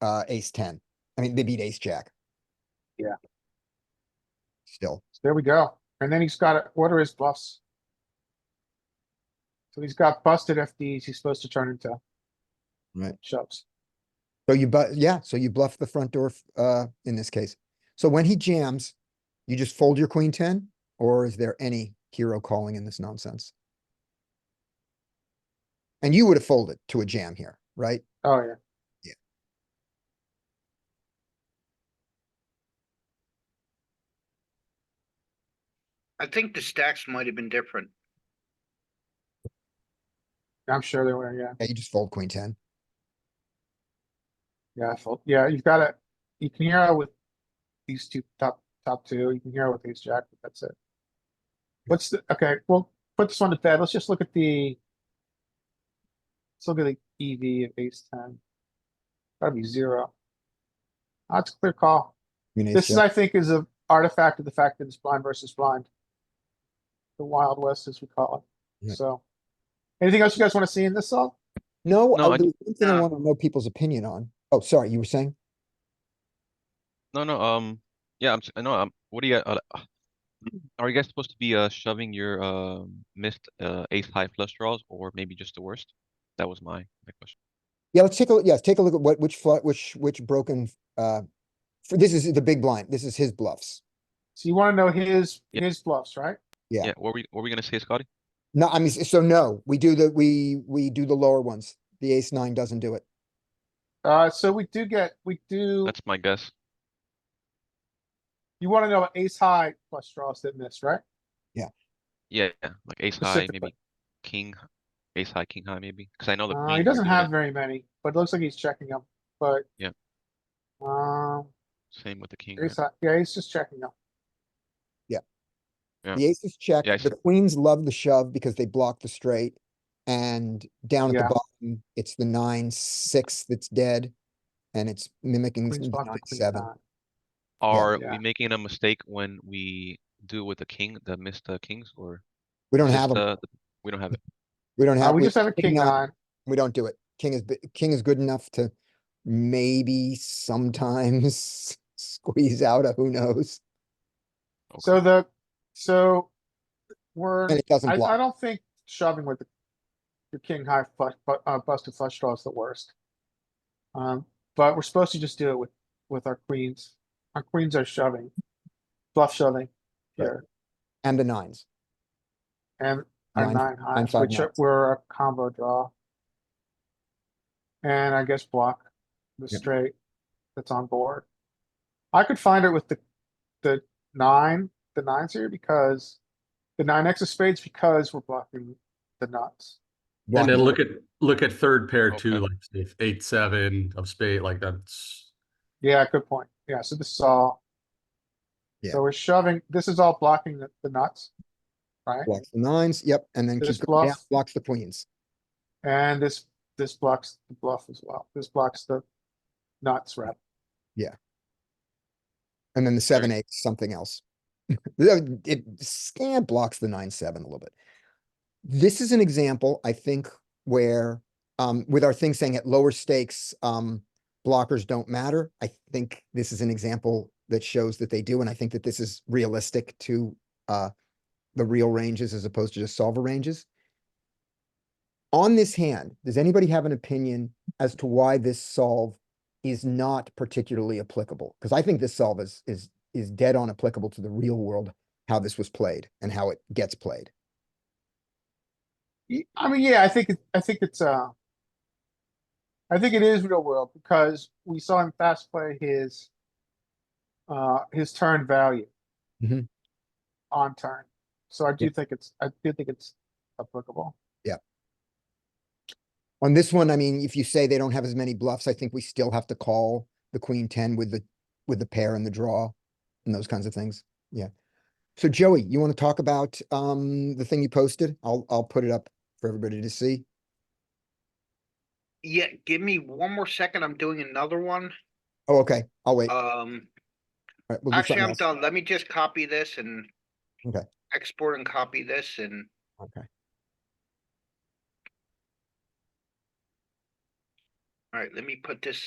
uh, ace ten. I mean, they beat ace jack. Yeah. Still, There we go. And then he's got, to what are his bluffs? So he's got busted FDs he's supposed to turn into. Right. Shoves. so you but, yeah, so you bluff the front door, f- uh, in this case. So when he jams, you just fold your queen ten, or is there any hero calling in this nonsense? And you would have folded to a jam here, right? Oh, yeah. Yeah. I think the stacks might have been different. I'm sure they were, yeah. Yeah, you just fold queen ten. Yeah, I felt, yeah, you've got to, you can hear with these two top, top two, you can hear with ace jack, but that's it. What's the, okay, well, put this one to bed. Let's just look at the. Let's look at the EV of ace ten. Gotta be zero. That's a clear call. You know, This is, so- I think, is an artifact of the fact that it's blind versus blind. The Wild West, as we call Yeah. it, so. Anything else you guys wanna see in this all? No, No, oh, I- there's one thing I nah. want to know people's opinion on. Oh, sorry, you were saying? No, no, um, yeah, I'm, s- I know, um, what do you, uh, uh, are you guys supposed to be, uh, shoving your, uh, missed, uh, ace high flush draws or maybe just the worst? That was my, my question. Yeah, let's take a, yes, take a look at what, which flush, which, which broken, uh, for, this is the big blind. This is his bluffs. So you wanna know his, Yeah. his bluffs, right? Yeah. Yeah, what were we, what were we gonna say, Scotty? No, I mean, s- so no, we do the, we, we do the lower ones. The ace nine doesn't do it. Uh, so we do get, we do, That's my guess. you wanna know ace high plus draws that miss, right? Yeah, yeah, like ace high, Specifically. maybe king, h- ace high, king high, maybe, cause I know the Uh, queens he were doesn't doing it. have very many, but it looks like he's checking them, but. Yeah. Um, Same with the king. right? ace high, yeah, he's just checking them. Yeah. The aces check, Yeah, I the see. queens love the shove because they block the straight. And down at Yeah. the bottom, it's the nine, six that's dead. And it's mimicking Queens the block nine, the queen seven. nine. Uh, Are Yeah. we making a mistake when we do with the king, the missed, uh, kings, or? We don't it's have just, them. uh, the- We don't have it. We don't Uh, have. we we- just have a king nine. We don't do it. King is, bi- king is good enough to maybe sometimes squeeze out a who knows, Okay. So the, so we're, and it doesn't I, I block. don't think shoving with the, your king high flush, but, uh, busted flush draw is the worst. Um, but we're supposed to just do it with, with our queens. Our queens are shoving, bluff shoving Right. here And the nines. and our Nine- nine highs, five which are- nines. were a combo draw. And I guess block the Yep. straight that's on board. I could find it with the, the nine, the nines here because the nine X of spades because we're blocking the nuts. And then Blocking. look at, look at third pair too, Okay. like if eight, seven of spade, like that's. Yeah, good point. Yeah, so this is all. Yeah. So we're shoving, this is all blocking the, the nuts. Right? Blocks the nines, yep, and then This keep going down, bluff. blocks the queens. And this, this blocks the bluff as well. This blocks the nuts, right? And then the seven, eight, something else. The- uh, It scant blocks the nine, seven a little bit. This is an example, I think, where, um, with our thing saying at lower stakes, um, blockers don't matter. I think this is an example that shows that they do, and I think that this is realistic to, uh, the real ranges as opposed to just solver ranges. On this hand, does anybody have an opinion as to why this solve is not particularly applicable, because I think this solve is, is, is dead on applicable to the real world, how this was played and how it gets played. Y- I mean, yeah, I think, it- I think it's, uh. I think it is real world because we saw him fast play his. Uh, his turn value. Mhm. On turn, so I do think it's, I do think it's applicable. On this one, I mean, if you say they don't have as many bluffs, I think we still have to call the queen ten with the, with the pair and the draw and those kinds of things. Yeah. So Joey, you want to talk about, um, the thing you posted? I'll, I'll put it up for everybody to see. Yeah, give me one more second. I'm doing another one. Oh, okay. I'll wait. All Um, right, we'll do actually, something I'm else. done. Let me just copy this and Okay. export and copy this and Okay. all right, let me put this